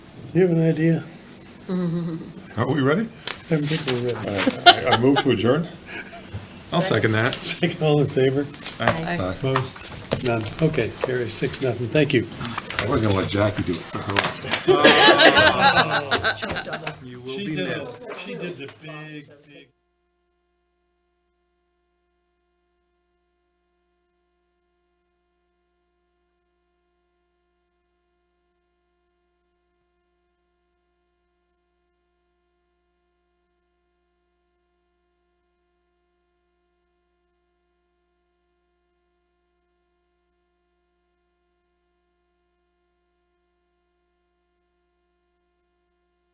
You have an idea? Are we ready? I'm people ready. I I move to adjourn? I'll second that. Second, all in favor? I Opposed? None. Okay, carry six, nothing. Thank you. was gonna let Jackie do it for her. She did, she did the big, big.